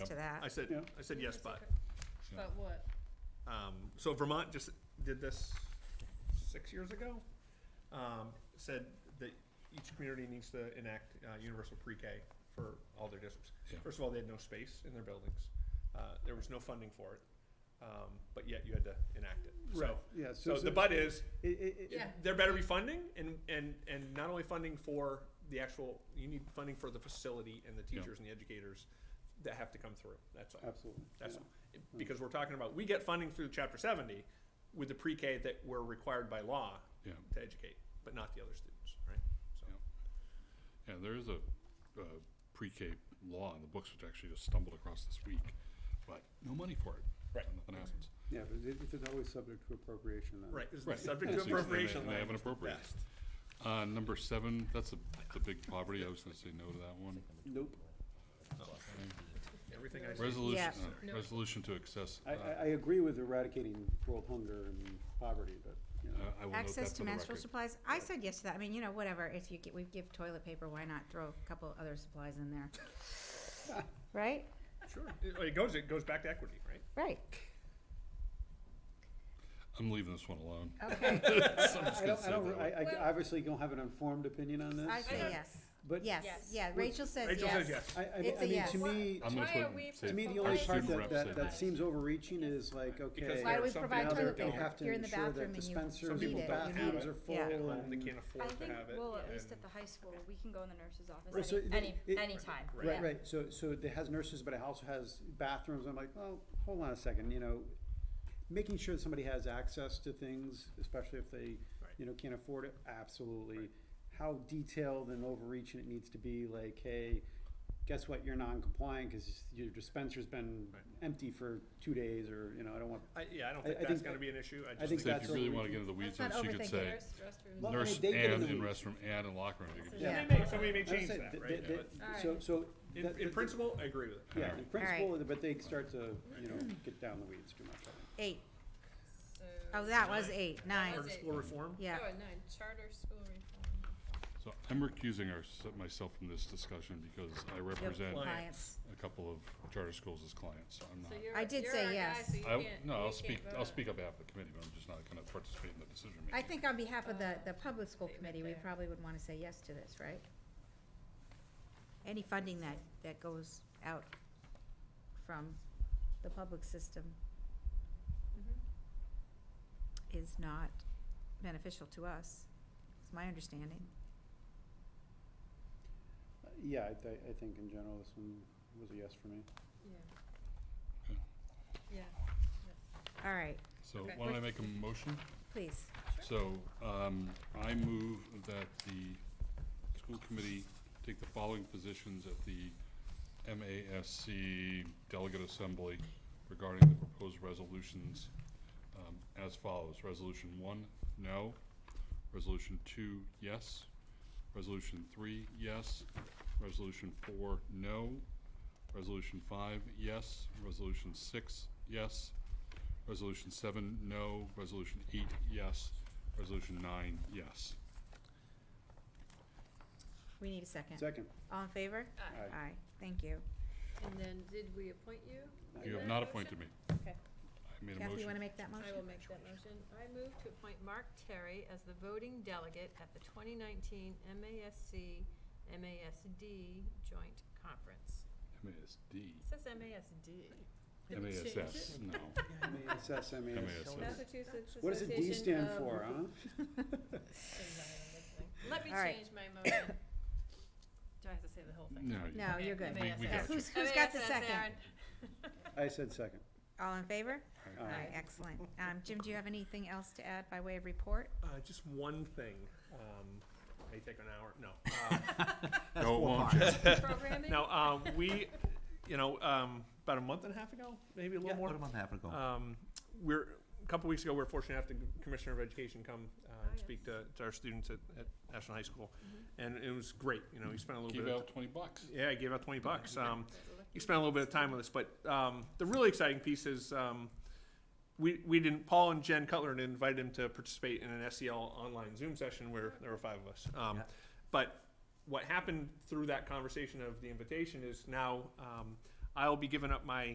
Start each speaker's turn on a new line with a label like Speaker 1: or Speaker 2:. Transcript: Speaker 1: that.
Speaker 2: I said, I said yes, but,
Speaker 3: But what?
Speaker 2: um, so Vermont just did this six years ago. Um, said that each community needs to enact, uh, universal pre-K for all their districts.
Speaker 4: Yeah.
Speaker 2: First of all, they had no space in their buildings. Uh, there was no funding for it. Um, but yet you had to enact it. So,
Speaker 5: Right, yeah, so-
Speaker 2: so the
Speaker 5: so-
Speaker 2: but is,
Speaker 5: It, it, it,
Speaker 3: Yeah.
Speaker 2: there better be funding and, and, and not only funding for the actual, you need funding for the facility and the teachers and the educators that have to come through. That's all.
Speaker 5: absolutely.
Speaker 2: That's
Speaker 5: yeah.
Speaker 2: because we're talking about, we get funding through chapter seventy with the pre-K that we're required by law
Speaker 4: Yeah.
Speaker 2: to educate, but not the other students, right? So,
Speaker 4: Yeah. Yeah, there is a, uh pre-K law in the books, which I actually just stumbled across this week, but no money for it.
Speaker 2: Right.
Speaker 4: And Nothing happens.
Speaker 5: Yeah, but it, it's always subject to appropriation. then.
Speaker 2: right, this
Speaker 4: Right.
Speaker 2: is subject to
Speaker 4: And they-
Speaker 2: appropriation.
Speaker 4: and They haven't
Speaker 2: language.
Speaker 4: appropriated.
Speaker 2: Best.
Speaker 4: Uh, number seven, that's the, the big poverty, I was gonna say no to that one.
Speaker 5: Nope,
Speaker 2: Oh, Everything I said,
Speaker 4: Resolution,
Speaker 3: Yeah.
Speaker 4: uh, resolution to access.
Speaker 5: I, I,
Speaker 4: uh,
Speaker 5: I agree with eradicating world hunger and poverty, but, you know,
Speaker 4: uh, I will note
Speaker 1: Access
Speaker 4: that
Speaker 1: to
Speaker 4: for the
Speaker 1: menstrual
Speaker 4: record.
Speaker 1: supplies, I said yes to that, I mean, you know, whatever, if you, gi- we give toilet paper, why not throw a couple other supplies in there? Right,
Speaker 2: sure. It it goes, it goes back to equity, right?
Speaker 1: right,
Speaker 4: I'm leaving this one alone.
Speaker 1: okay,
Speaker 5: I don't, I don't, I, I
Speaker 3: Well-
Speaker 5: obviously don't have an informed opinion on this.
Speaker 1: I say
Speaker 5: uh,
Speaker 1: yes,
Speaker 5: But
Speaker 1: yes,
Speaker 3: Yes.
Speaker 1: yeah, Rachel says
Speaker 2: Rachel says
Speaker 1: yes.
Speaker 2: yes.
Speaker 5: I, I,
Speaker 1: It's a
Speaker 5: I mean,
Speaker 1: yes.
Speaker 5: to me,
Speaker 4: I'm gonna
Speaker 3: Why
Speaker 4: put
Speaker 3: are we
Speaker 4: say-
Speaker 5: to me, the
Speaker 3: Our
Speaker 5: only part
Speaker 4: student
Speaker 5: that,
Speaker 4: rep
Speaker 5: that,
Speaker 4: said
Speaker 5: that
Speaker 4: yes.
Speaker 5: seems overreaching is like, okay.
Speaker 2: Because
Speaker 1: Why do
Speaker 2: there are
Speaker 1: we
Speaker 2: some
Speaker 1: provide
Speaker 2: people
Speaker 1: toilet
Speaker 2: that
Speaker 5: They
Speaker 2: don't-
Speaker 1: paper?
Speaker 5: have
Speaker 1: If you're
Speaker 5: to
Speaker 1: in the
Speaker 5: ensure
Speaker 1: bathroom
Speaker 5: that
Speaker 1: and you-
Speaker 2: Some
Speaker 5: dispensers
Speaker 1: need it,
Speaker 2: people
Speaker 5: and
Speaker 1: you
Speaker 2: don't have
Speaker 5: bathrooms
Speaker 2: it.
Speaker 5: are full
Speaker 1: Yeah.
Speaker 2: They don't- They
Speaker 5: and.
Speaker 2: can't
Speaker 6: I
Speaker 2: afford to
Speaker 6: think,
Speaker 2: have it.
Speaker 6: well, at least at
Speaker 2: and-
Speaker 6: the high school, we can go in the nurse's
Speaker 5: Right,
Speaker 6: office
Speaker 5: so
Speaker 6: any,
Speaker 5: the- it-
Speaker 6: any, anytime.
Speaker 5: Right, right, so, so it has nurses, but it also has bathrooms, I'm like, well, hold on a second, you know, making sure that somebody has access to things, especially if they,
Speaker 2: Right.
Speaker 5: you know, can't afford it, absolutely.
Speaker 2: Right.
Speaker 5: How detailed and overreaching it needs to be, like, hey, guess what, you're non-compliant, cause your dispenser's been
Speaker 2: Right.
Speaker 5: empty for two days, or, you know, I don't want.
Speaker 2: I, yeah, I don't
Speaker 5: I-
Speaker 2: think
Speaker 5: I
Speaker 2: that's
Speaker 5: think-
Speaker 2: gonna be an issue. I
Speaker 5: I think
Speaker 2: just
Speaker 4: Say
Speaker 2: think,
Speaker 4: if
Speaker 5: that's
Speaker 4: you really
Speaker 5: overreaching.
Speaker 4: wanna get into the weeds,
Speaker 1: Let's
Speaker 4: she
Speaker 1: not
Speaker 4: could
Speaker 1: overthink
Speaker 4: say
Speaker 1: it.
Speaker 5: Well, I mean,
Speaker 4: nurse
Speaker 5: they get
Speaker 4: and
Speaker 5: the
Speaker 4: in
Speaker 5: weeds.
Speaker 4: restroom and in locker room. You could-
Speaker 1: Yeah.
Speaker 2: they may, somebody may
Speaker 5: I would
Speaker 2: change
Speaker 5: say
Speaker 2: that,
Speaker 5: th-
Speaker 2: right?
Speaker 5: th-
Speaker 2: But
Speaker 5: th- So, so.
Speaker 2: In,
Speaker 5: that-
Speaker 2: in
Speaker 5: that-
Speaker 2: principle, I agree with it.
Speaker 5: Yeah, in
Speaker 1: All
Speaker 5: principle, but they start to, you know, get down the weeds too much. I think.
Speaker 1: Eight. Oh, that was eight,
Speaker 2: Charter
Speaker 1: nine,
Speaker 3: it.
Speaker 2: school reform?
Speaker 1: yeah,
Speaker 3: nine, Oh, charter school reform.
Speaker 4: So I'm recusing our- myself from this discussion because I represent
Speaker 1: compliance.
Speaker 4: a couple of charter schools as clients, so I'm not.
Speaker 3: So you're,
Speaker 1: I did
Speaker 3: you're
Speaker 1: say
Speaker 3: our guy,
Speaker 1: yes.
Speaker 3: so you
Speaker 4: I,
Speaker 3: can't-
Speaker 4: no,
Speaker 3: you
Speaker 4: I'll
Speaker 3: can't
Speaker 4: speak,
Speaker 3: vote on
Speaker 4: I'll
Speaker 3: it.
Speaker 4: spek on behalf of the committee, but I'm just not gonna participate in the decision
Speaker 1: I
Speaker 4: making.
Speaker 1: think on behalf of the, the public school committee, we
Speaker 3: there.
Speaker 1: probably would want to say yes to this, right? Any funding that, that goes out from the public system
Speaker 3: Mm-hmm.
Speaker 1: is not beneficial to us, is my understanding.
Speaker 5: Uh, Yeah, I, thi- I think in general, this one was a yes for me.
Speaker 3: Yeah. Yeah.
Speaker 1: All right,
Speaker 4: So
Speaker 3: Okay.
Speaker 4: why don't I make a motion?
Speaker 1: please.
Speaker 4: So, um, I move that the school committee take the following positions at the MASC Delegate Assembly regarding the proposed resolutions, um, as follows. Resolution one, no. Resolution two, yes. Resolution three, yes. Resolution four, no. Resolution five, yes. Resolution six, yes. Resolution seven, no. Resolution eight, yes. Resolution nine, yes.
Speaker 1: We need a second.
Speaker 5: Second,
Speaker 1: All in favor?
Speaker 3: Aye.
Speaker 1: Aye, thank you.
Speaker 3: And then, did we appoint you?
Speaker 4: You have
Speaker 3: That
Speaker 4: not
Speaker 3: motion?
Speaker 4: appointed me.
Speaker 3: Okay.
Speaker 4: I made a
Speaker 1: Kathy, you want to
Speaker 4: motion.
Speaker 1: make that motion?
Speaker 3: I will make that motion. I move to appoint Mark Terry as the voting delegate at the 2019 MASC, MASD Joint Conference.
Speaker 4: MASD.
Speaker 3: It says MASD.
Speaker 4: MASS, no.
Speaker 5: MASs, MAS.
Speaker 4: MASS.
Speaker 3: Massachusetts
Speaker 5: What does a D
Speaker 3: Association
Speaker 5: stand
Speaker 3: of-
Speaker 5: for, huh?
Speaker 3: Let me
Speaker 1: All right.
Speaker 3: change my motion. Do I have to say the whole thing?
Speaker 4: No. you-
Speaker 1: No, you're good.
Speaker 4: We- we
Speaker 3: MASS.
Speaker 4: got you.
Speaker 1: Who's, who's got the
Speaker 3: MASS,
Speaker 1: second?
Speaker 3: Aaron.
Speaker 5: I said second.
Speaker 1: All in favor?
Speaker 5: Aye.
Speaker 1: Aye, excellent. Um, Jim, do you have anything else to add by way of report?
Speaker 2: Uh, just one thing. Um, may take an hour. No. Um,
Speaker 4: No, it won't, Jim.
Speaker 3: Programming?
Speaker 2: now um, we, you know, um, about a month and a half ago, maybe a little more.
Speaker 7: About a month and a half ago.
Speaker 2: Um, we're a couple weeks ago. We are fortunate to have the commissioner of education come uh, and speak to, to our students at, at National High School, and it was great. You know, he spent a little
Speaker 4: Give
Speaker 2: bit. of
Speaker 4: out twenty bucks.
Speaker 2: yeah, I gave out twenty bucks. Um, you spent a little bit of time with us, but um, the really exciting piece is um, we we didn't. Paul and Jen Cutler invited him to participate in an SEL online Zoom session where there were five of us. Um,
Speaker 7: Yeah.
Speaker 2: But what happened through that conversation of the invitation is now um, I will be giving up my